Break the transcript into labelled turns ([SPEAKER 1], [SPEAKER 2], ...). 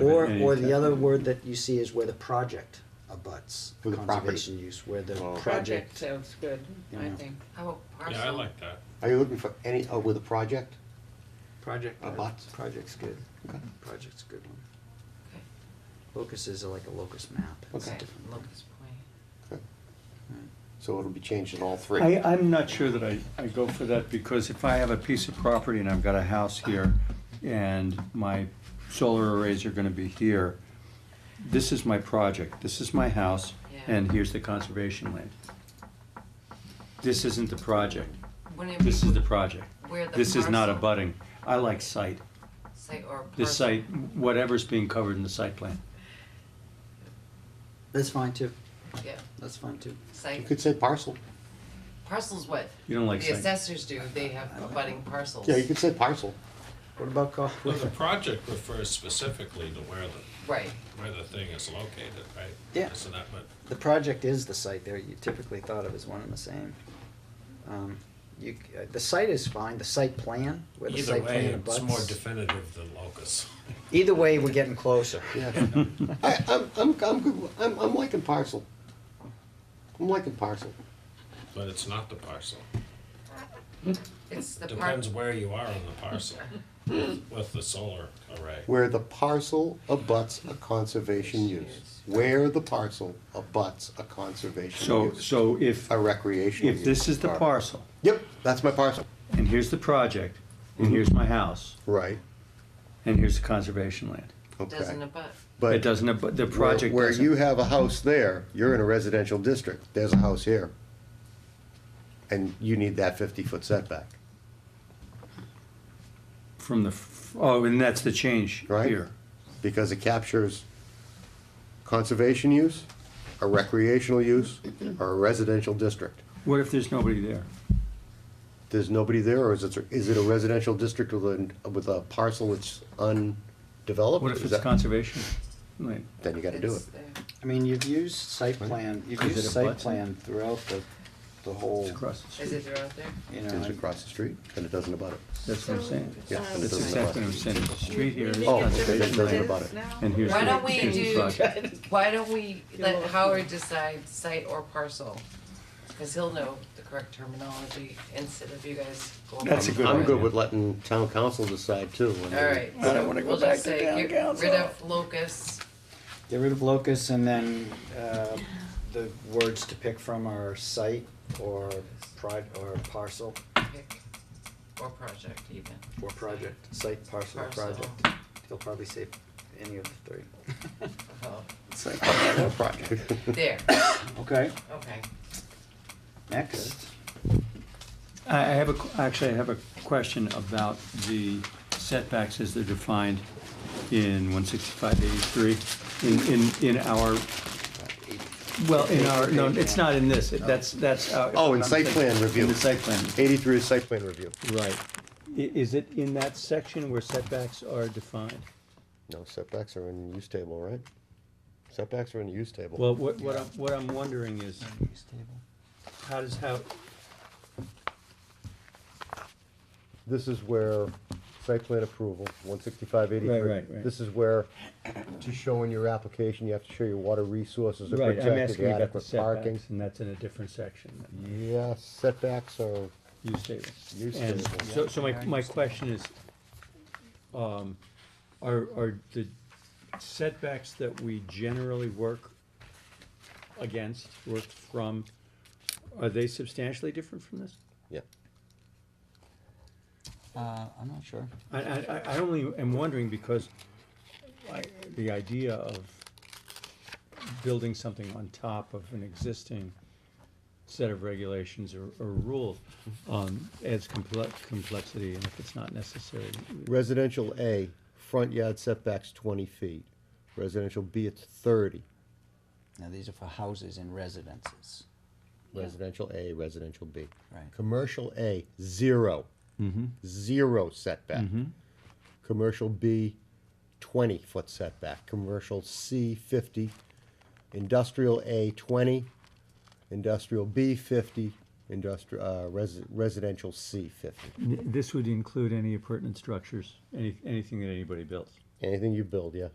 [SPEAKER 1] Or,
[SPEAKER 2] Any
[SPEAKER 1] or the
[SPEAKER 2] type
[SPEAKER 1] other
[SPEAKER 2] of-
[SPEAKER 1] word that you see is where the project abuts
[SPEAKER 2] With the property.
[SPEAKER 1] conservation use, where the
[SPEAKER 2] Oh.
[SPEAKER 3] Project
[SPEAKER 1] project.
[SPEAKER 3] sounds good, I
[SPEAKER 2] Yeah.
[SPEAKER 3] think.
[SPEAKER 4] How about parcel?
[SPEAKER 5] Yeah, I like that.
[SPEAKER 2] Are you looking for any, oh, with a project?
[SPEAKER 4] uh,
[SPEAKER 1] Project.
[SPEAKER 2] Abuts.
[SPEAKER 1] Project's good.
[SPEAKER 2] Okay.
[SPEAKER 1] Project's a good one.
[SPEAKER 4] Okay.
[SPEAKER 1] Locuses are like a locus map. It's a
[SPEAKER 4] Okay,
[SPEAKER 1] different one.
[SPEAKER 4] Locust Point.
[SPEAKER 2] Okay. So it'll be changed in all three?
[SPEAKER 6] I, I'm not sure that I, I go for that, because if I have a piece of property and I've got a house here, and my solar arrays are gonna be here, this is my project, this is my house, and here's the conservation land. This isn't the project,
[SPEAKER 4] Wouldn't
[SPEAKER 6] this is
[SPEAKER 4] it
[SPEAKER 6] the project,
[SPEAKER 4] be where the
[SPEAKER 6] this is not
[SPEAKER 4] parcel-
[SPEAKER 6] abutting, I like site,
[SPEAKER 4] Site or parcel?
[SPEAKER 6] this site, whatever's being covered in the site plan.
[SPEAKER 1] That's fine too.
[SPEAKER 4] Yeah,
[SPEAKER 1] That's fine too.
[SPEAKER 2] You
[SPEAKER 4] site,
[SPEAKER 2] could say parcel.
[SPEAKER 4] parcels what?
[SPEAKER 6] You don't like
[SPEAKER 4] The
[SPEAKER 6] site,
[SPEAKER 4] assessors do, they have abutting parcels.
[SPEAKER 2] Yeah, you could say parcel.
[SPEAKER 1] What about co-
[SPEAKER 5] Well, the project refers specifically to where the,
[SPEAKER 4] Right,
[SPEAKER 5] where the thing is located, right?
[SPEAKER 1] Yeah.
[SPEAKER 5] Isn't that what?
[SPEAKER 1] The project is the site there, you typically thought of as one and the same. Um, You, c- uh, the site is fine, the site plan, where the
[SPEAKER 5] Either
[SPEAKER 1] site
[SPEAKER 5] way,
[SPEAKER 1] plan
[SPEAKER 5] it's more
[SPEAKER 1] abuts.
[SPEAKER 5] definitive than locus.
[SPEAKER 1] Either way, we're getting closer.
[SPEAKER 2] Yeah. I, I'm, I'm, I'm good, with- I'm, I'm liking parcel. I'm liking parcel.
[SPEAKER 5] But it's not the parcel.
[SPEAKER 4] it's the part,
[SPEAKER 5] Depends where you are on the parcel with the solar array.
[SPEAKER 2] Where the parcel abuts a conservation use. Where the parcel abuts a conservation
[SPEAKER 6] so,
[SPEAKER 2] use.
[SPEAKER 6] so if,
[SPEAKER 2] A recreational use.
[SPEAKER 6] if this is the
[SPEAKER 2] Or-
[SPEAKER 6] parcel,
[SPEAKER 2] Yep, that's my parcel.
[SPEAKER 6] and here's the project, and
[SPEAKER 2] Mm-hmm.
[SPEAKER 6] here's my house,
[SPEAKER 2] Right,
[SPEAKER 6] and here's the conservation land.
[SPEAKER 4] doesn't
[SPEAKER 2] okay.
[SPEAKER 4] abut,
[SPEAKER 2] But
[SPEAKER 6] It doesn't, ab- the
[SPEAKER 2] where-
[SPEAKER 6] project
[SPEAKER 2] Where you
[SPEAKER 6] doesn't.
[SPEAKER 2] have a house there, you're in a residential district, there's a house here. And you need that fifty-foot setback,
[SPEAKER 6] From the, f- oh, and that's the change
[SPEAKER 2] Right.
[SPEAKER 6] here.
[SPEAKER 2] because it captures conservation use, a recreational use, or a residential district.
[SPEAKER 6] What if there's nobody there?
[SPEAKER 2] There's nobody there, or is it, is it a residential district with a, with a parcel that's undeveloped?
[SPEAKER 6] What if
[SPEAKER 2] Is
[SPEAKER 6] it's
[SPEAKER 2] that-
[SPEAKER 6] conservation? land?
[SPEAKER 2] Then you gotta do it.
[SPEAKER 4] it's there.
[SPEAKER 1] I mean, you've used site plan, you've
[SPEAKER 6] Is
[SPEAKER 1] used
[SPEAKER 6] it a
[SPEAKER 1] site
[SPEAKER 6] button?
[SPEAKER 1] plan throughout the, the whole,
[SPEAKER 6] It's across the
[SPEAKER 4] Is
[SPEAKER 6] street.
[SPEAKER 4] it throughout there?
[SPEAKER 1] you
[SPEAKER 2] It's
[SPEAKER 1] know,
[SPEAKER 2] across the street, and it doesn't abut it.
[SPEAKER 6] That's what I'm saying.
[SPEAKER 2] Yeah, and it
[SPEAKER 6] That's
[SPEAKER 2] doesn't abut
[SPEAKER 6] exactly what I'm
[SPEAKER 2] it.
[SPEAKER 6] saying. The street here is
[SPEAKER 2] Oh, okay,
[SPEAKER 6] conservation
[SPEAKER 2] that doesn't
[SPEAKER 6] land,
[SPEAKER 2] abut it.
[SPEAKER 6] and here's
[SPEAKER 4] Why
[SPEAKER 6] the-
[SPEAKER 4] don't we
[SPEAKER 6] here's the
[SPEAKER 4] do-
[SPEAKER 6] project.
[SPEAKER 4] Why don't we let Howard decide site or parcel? Cause he'll know the correct terminology instead of you guys going.
[SPEAKER 6] That's a
[SPEAKER 4] back
[SPEAKER 6] good
[SPEAKER 4] and
[SPEAKER 2] I'm
[SPEAKER 6] idea.
[SPEAKER 4] forth.
[SPEAKER 2] good with letting town council decide too. when they-
[SPEAKER 4] Alright, so we'll just say get rid of locusts,
[SPEAKER 1] get rid of locus and then, uh, the words to pick from are site or prod, or parcel,
[SPEAKER 4] pick, or project even.
[SPEAKER 1] or project, site, parcel, or
[SPEAKER 4] Parcel.
[SPEAKER 1] project. He'll probably say any of the three.
[SPEAKER 4] Oh,
[SPEAKER 2] project.
[SPEAKER 4] There,
[SPEAKER 1] Okay,
[SPEAKER 4] okay.
[SPEAKER 1] next.
[SPEAKER 6] I I have a, qu- actually, I have a question about the setbacks as they're defined in one sixty-five eighty-three, in, in, in our, well, in our, no, it's not in this, It- that's, that's. uh,
[SPEAKER 2] Oh, in
[SPEAKER 6] I'm
[SPEAKER 2] site
[SPEAKER 6] saying-
[SPEAKER 2] plan review.
[SPEAKER 6] In the site plan,
[SPEAKER 2] Eighty-three is site plan review.
[SPEAKER 6] right. I- is it in that section where setbacks are defined?
[SPEAKER 2] No, setbacks are in use table, right? Setbacks are in use table.
[SPEAKER 6] Well, what, what I'm, what I'm wondering is, how does, how,
[SPEAKER 2] This is where site plan approval, one sixty-five eighty-three.
[SPEAKER 6] Right, right, right.
[SPEAKER 2] This is where, to show in your application, you have to show your water resources are
[SPEAKER 6] right, I'm asking
[SPEAKER 2] protected,
[SPEAKER 6] you about the
[SPEAKER 2] adequate parking.
[SPEAKER 6] setbacks, and that's in a different section, than
[SPEAKER 2] Yeah, setbacks are,
[SPEAKER 6] use table.
[SPEAKER 2] Use
[SPEAKER 6] And
[SPEAKER 2] table.
[SPEAKER 6] so, so my, my question is, um, are, are the setbacks that we generally work against, work from, are they substantially different from this?
[SPEAKER 2] yeah.
[SPEAKER 1] Uh, I'm not sure.
[SPEAKER 6] I, I, I- I only am wondering because I, the idea of building something on top of an existing set of regulations or, or rules, um, adds complex, complexity, and if it's not necessary.
[SPEAKER 2] Residential A, front yard setbacks twenty feet. Residential B, it's thirty.
[SPEAKER 1] Now, these are for houses and residences.
[SPEAKER 2] Residential A, residential B.
[SPEAKER 1] Right.
[SPEAKER 2] Commercial A, 0 Zero setback. Commercial B, twenty foot setback. Commercial C, fifty. Industrial A, twenty. Industrial B, fifty. Industrial, uh, resi- residential C, fifty.
[SPEAKER 6] N- This would include any appurtenant structures, any, anything that anybody builds.
[SPEAKER 2] Anything you build, yeah.